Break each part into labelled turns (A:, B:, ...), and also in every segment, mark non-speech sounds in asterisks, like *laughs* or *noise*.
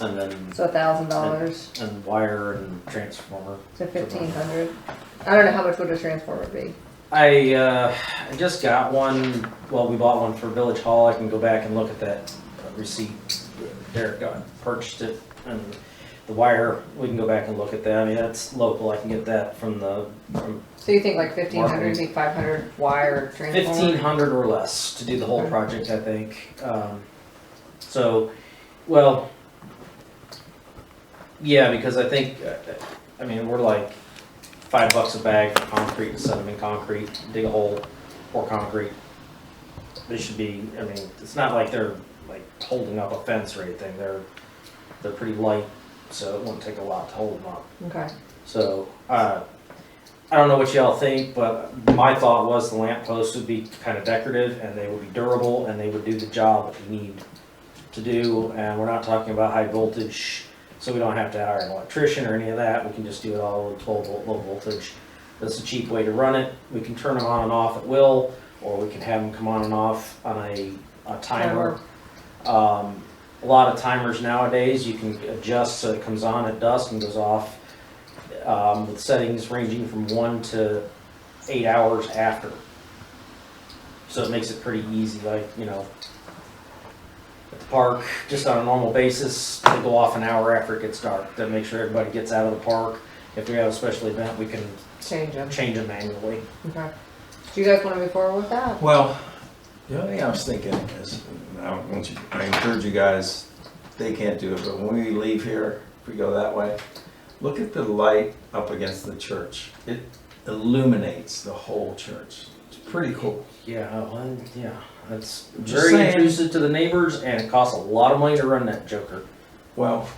A: and then,
B: so a thousand dollars
A: and wire and transformer.
B: to fifteen hundred. I don't know how much would a transformer be.
A: I, uh, I just got one, well, we bought one for Village Hall, I can go back and look at that uh, receipt. Derek got, purchased it, and the wire, we can go back and look at that, I mean, that's local, I can get that from the, from
B: So you think like fifteen hundred, think five hundred wire
A: fifteen
B: transformer?
A: hundred or less to do the whole project, I think. Um, so, well, yeah, because I think, uh, I mean, we're like five bucks a bag for concrete and set them in concrete, dig a hole, pour concrete. They should be, I mean, it's not like they're like holding up a fence or anything. They're they're pretty light, so it won't take a lot to hold them up.
B: Okay,
A: So, uh, I don't know what y'all think, but my thought was the lamp posts would be kind of decorative and they would be durable and they would do the job that we need to do. And we're not talking about high voltage, so we don't have to hire an electrician or any of that. We can just do it all with twelve volt, low voltage. That's a cheap way to run it. We can turn them on and off at will, or we can have them come on and off on a, a timer. Um, a lot of timers nowadays, you can adjust so it comes on at dusk and goes off um, with settings ranging from one to eight hours after. So it makes it pretty easy, like, you know, at the park, just on a normal basis, they go off an hour after it gets dark, to make sure everybody gets out of the park. If we have a special event, we can
B: change them,
A: change them manually.
B: okay. Do you guys wanna move forward with that?
C: Well, the only thing I was thinking is, and I want you, I encourage you guys, they can't do it, but when we leave here, if we go that way, look at the light up against the church. It illuminates the whole church. It's pretty cool.
A: Yeah, well, yeah, that's
C: Just
A: very
C: saying.
A: intrusive to the neighbors and it costs a lot of money to run that joker.
C: Well,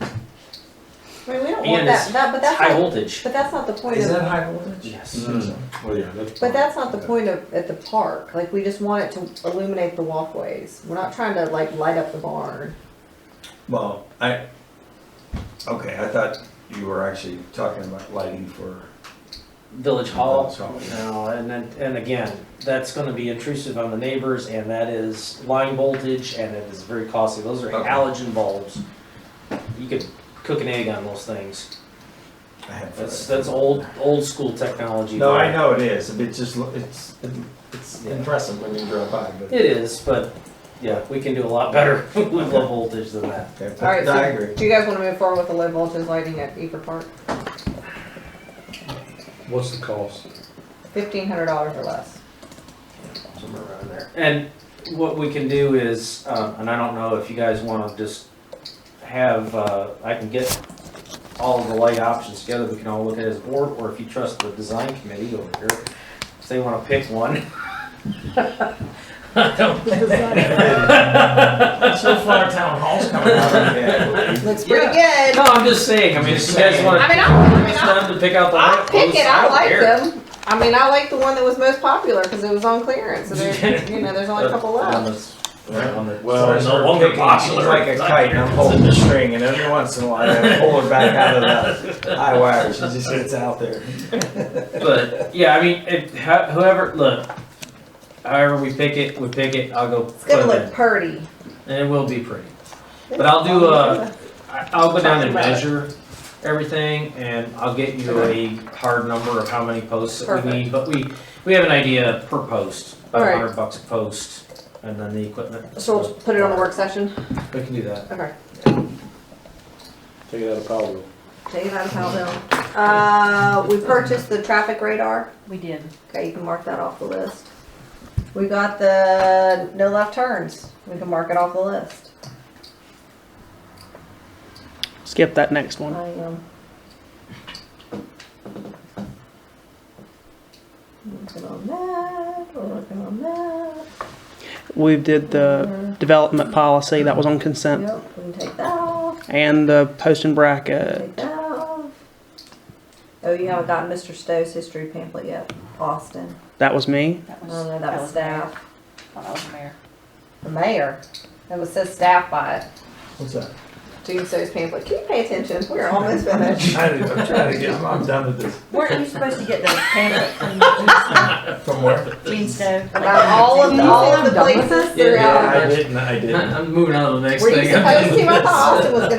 B: I mean, we don't want
A: And it's
B: that, that, but that's
A: high
B: not,
A: voltage.
B: but that's not the point
C: is that
B: of,
C: high voltage?
A: Yes.
C: Mm. Well, yeah, that's.
B: but that's not the point of, at the park, like, we just want it to illuminate the walkways. We're not trying to like light up the barn.
C: Well, I, okay, I thought you were actually talking about lighting for.
A: Village Hall.
C: Village Hall, yeah.
A: No, and then, and again, that's gonna be intrusive on the neighbors, and that is line voltage, and it is very costly, those are
C: Okay.
A: halogen bulbs. You could cook an egg on those things,
C: I had-
A: that's, that's old, old school technology.
C: No, I
A: but-
C: know it is, but it just, lo- it's, it's impressive when you drive by, but.
A: It is, but, yeah, we can do a lot better *laughs* with low voltage than that.
C: Okay, but-
B: Alright,
C: no, I
B: so,
C: *laughs* agree.
B: do you guys wanna move forward with the low voltage lighting at Eager Park?
D: What's the cost?
B: Fifteen hundred dollars or less?
A: somewhere around there. And what we can do is, um, and I don't know if you guys wanna just have, uh, I can get all of the light options together, we can all look at it as a board, or if you trust the design committee over here, if they wanna pick one. I don't,
C: So far, town hall's coming *laughs* out of it.
B: Looks pretty good.
A: *laughs* no, I'm just saying, I mean, if you guys
B: I
A: wanna,
B: mean, I, I mean,
A: it's
B: I,
A: time to pick out the
B: I
A: light
B: pick
A: posts,
B: it. I
A: I don't
B: like
A: care.
B: them. I mean, I like the one that was most popular because it was on clearance. So
A: *laughs*
B: there, you know, there's only a couple
A: On
B: left.
A: this- on the-
C: Well,
A: Sorry,
C: it's
A: no
C: no
A: longer
C: longer
A: popular.
C: Like a kite, and I'm holding the string, and every once in a while, I pull it back out of the high wire, she just gets out there.
A: But yeah, I mean, if ho- whoever look, however we pick it, we pick it. I'll go
B: It's
A: put
B: gonna
A: it
B: look
A: in,
B: purty.
A: and it will be pretty. uh, But I'll do uh, a- I- I'll go down and measure everything, and I'll get you a hard number of how many posts that we
B: Perfect.
A: need. But we we have an idea per post, about a
B: Alright.
A: hundred bucks a post, and then the equipment.
B: So we'll put it on the work session.
A: We can do that.
B: Okay.
D: Take it out of power.
B: Take it out of Powellville. Uh, we purchased the traffic radar.
E: We did.
B: Okay, you can mark that off the list. We got the no left turns. We can mark it off the list.
F: Skip that next one.
B: I am. Working on that, we're working on that.
F: We did the development policy that was on consent
B: Yep, we can take that off,
F: and the post and bracket.
B: take that off. Oh, you haven't gotten Mr. Stowe's history pamphlet yet, Austin.
F: That was me.
E: That
B: Oh,
E: was,
B: no, that was
E: mayor.
B: staff,
E: Oh, That was mayor.
B: the mayor. It was says staff by it.
C: *laughs* What's that?
B: Doomsday's pamphlet. Can you pay attention? We're almost finished.
C: trying to, I'm trying to get, I'm done with this.
D: Weren't you supposed to get the pamphlet from
C: From where?
D: Gene Snow?
B: About all of all of the
E: I'm done with
B: places
E: Yeah,
B: throughout.
C: I didn't, I didn't.
E: *laughs* I'm moving on to the next
B: Were
E: thing. *laughs*
B: you supposed to? I thought Austin was gonna